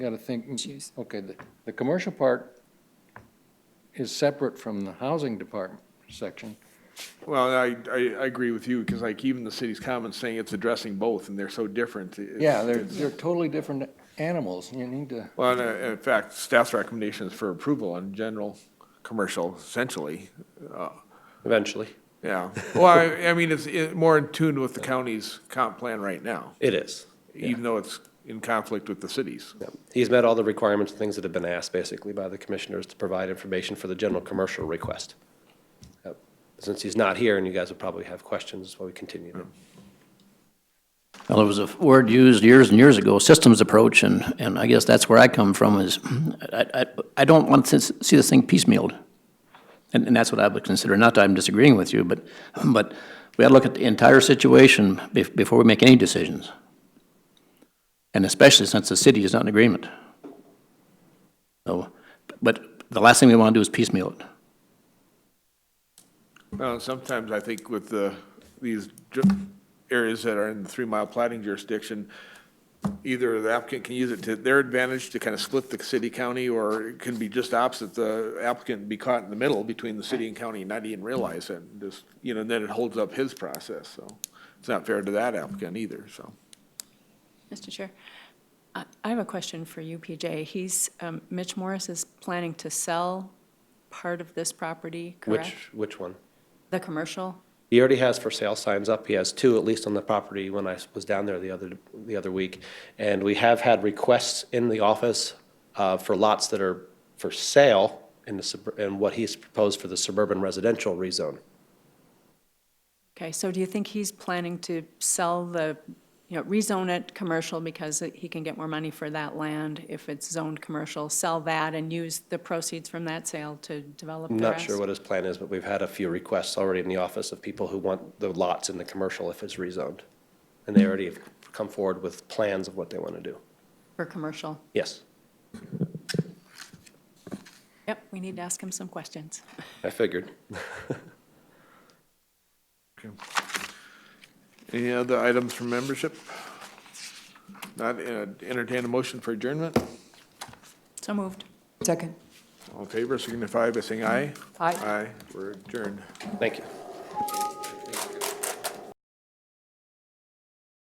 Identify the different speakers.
Speaker 1: You gotta think, mm,
Speaker 2: Issues.
Speaker 1: okay, the, the commercial part is separate from the housing department section.
Speaker 3: Well, I, I, I agree with you, because like even the city's comments saying it's addressing both, and they're so different. It's-
Speaker 1: Yeah, they're,
Speaker 3: it's-
Speaker 1: they're totally different animals, you need to,
Speaker 3: Well, and, uh, in fact, staff's recommendation is for approval on general commercial essentially,
Speaker 4: Eventually,
Speaker 3: yeah. Well, I, I mean, it's it- more in tune with the county's comp plan right now,
Speaker 4: it is.
Speaker 3: even though it's in conflict with the cities.
Speaker 4: Yeah. He's met all the requirements, things that have been asked basically by the commissioners to provide information for the general commercial request. Yep. Since he's not here and you guys will probably have questions while we continue.
Speaker 5: Well, it was a word used years and years ago, systems approach, and, and I guess that's where I come from is, I, I, I don't want to s- see this thing piecemealed. And, and that's what I would consider, not that I'm disagreeing with you, but, but we gotta look at the entire situation bef- before we make any decisions. And especially since the city is not in agreement. So, but the last thing we wanna do is piecemeal it.
Speaker 3: Well, sometimes I think with the, these ju- areas that are in the three-mile plating jurisdiction, either the applicant can use it to their advantage to kind of split the city, county, or it can be just opposite, the applicant be caught in the middle between the city and county and not even realize it, and just, you know, and then it holds up his process, so it's not fair to that applicant either, so.
Speaker 2: Mr. Chair, I I have a question for you, PJ. He's, um, Mitch Morris is planning to sell part of this property, correct?
Speaker 4: Which, which one?
Speaker 2: The commercial?
Speaker 4: He already has for sale signs up. He has two, at least on the property when I was down there the other, the other week. And we have had requests in the office uh, for lots that are for sale in the, sub- in what he's proposed for the suburban residential rezone.
Speaker 2: Okay, so do you think he's planning to sell the, you know, rezone it commercial because he can get more money for that land if it's zoned commercial, sell that and use the proceeds from that sale to develop the
Speaker 4: I'm
Speaker 2: rest?
Speaker 4: not sure what his plan is, but we've had a few requests already in the office of people who want the lots in the commercial if it's rezoned. And they already have come forward with plans of what they want to do.
Speaker 2: For commercial.
Speaker 4: Yes,
Speaker 2: Yep, we need to ask him some questions.
Speaker 4: I figured.
Speaker 3: Any other items from membership? Not, uh, entertain a motion for adjournment?
Speaker 2: So moved.
Speaker 6: Second.
Speaker 3: All in favor, signify by saying aye.
Speaker 6: Aye.
Speaker 3: Aye, we're adjourned.
Speaker 4: Thank you.